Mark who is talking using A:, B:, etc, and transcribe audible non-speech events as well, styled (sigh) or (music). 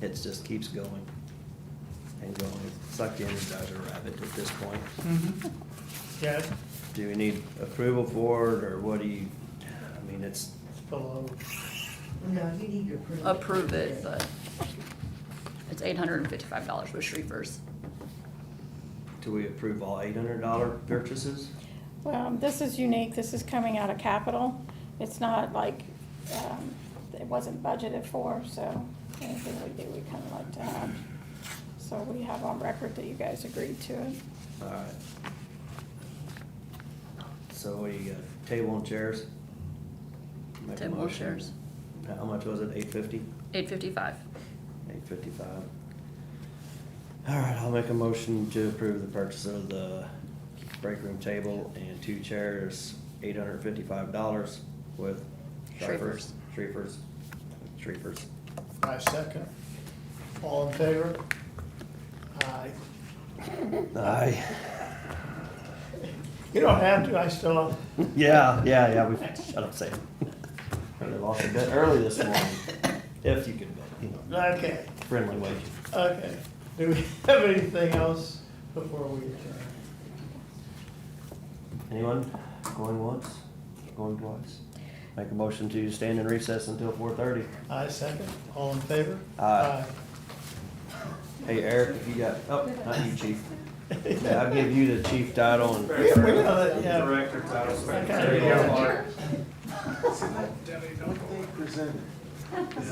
A: it just keeps going and going. It's like the Energizer rabbit at this point.
B: Mhm. Yeah,
A: Do we need approval for it, or what do you, I mean, it's,
B: it's below.
C: No, you need to approve.
D: approve it, but it's eight hundred and fifty-five dollars with Shreevers.
A: do we approve all eight hundred dollar purchases?
E: Well, Um, this is unique, this is coming out of capital. It's not like, um, it wasn't budgeted for, so anything we do, we kind of like to have. So we have on record that you guys agreed to it.
A: All right. So what do you got, table and chairs? Make a
D: Table and
A: motion.
D: chairs.
A: How much was it, eight fifty?
D: Eight fifty-five.
A: Eight fifty-five. All right, I'll make a motion to approve the purchase of the break room table and two chairs, eight hundred fifty-five dollars with.
D: Shreevers.
A: Shreevers, Shreevers.
B: I second. All in favor? Aye.
A: Aye.
B: You don't have to, I still,
A: (laughs) Yeah, yeah, yeah, we, shut up, Sam. I lost a bit early this morning, if you could, bet, you know,
B: okay,
A: friendly way.
B: okay. Do we (laughs) have anything else before we adjourn?
A: Anyone going once, going twice? Make a motion to stand in recess until four thirty.
B: I second. All in favor?
A: Aye. Hey Eric, if you got, oh, not you chief. Yeah, I'll give you the chief title and.
B: We- we gotta- yeah.
F: Director title.
B: There you go.
F: What they presented.